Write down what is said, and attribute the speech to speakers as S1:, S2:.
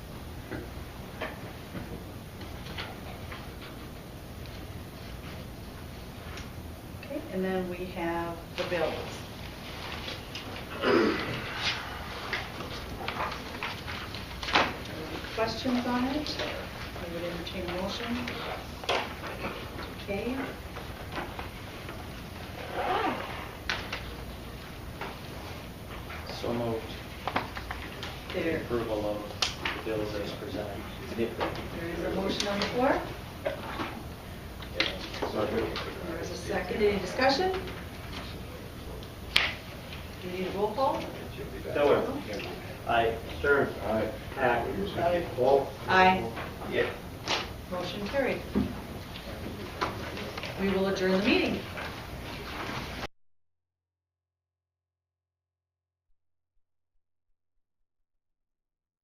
S1: and then we have the bills. Any Questions on it? I would entertain a motion. Okay. Ah,
S2: So moved. The
S1: There,
S2: approval of the bills as presented.
S1: there is a motion on the floor. There is a second. Any discussion? Do you need a roll call?
S2: Miller. Aye. Stern.
S3: Aye.
S2: Hack.
S1: Aye.
S2: Wolf.
S1: Aye.
S2: Yeah.
S1: Motion carried. We will adjourn the meeting.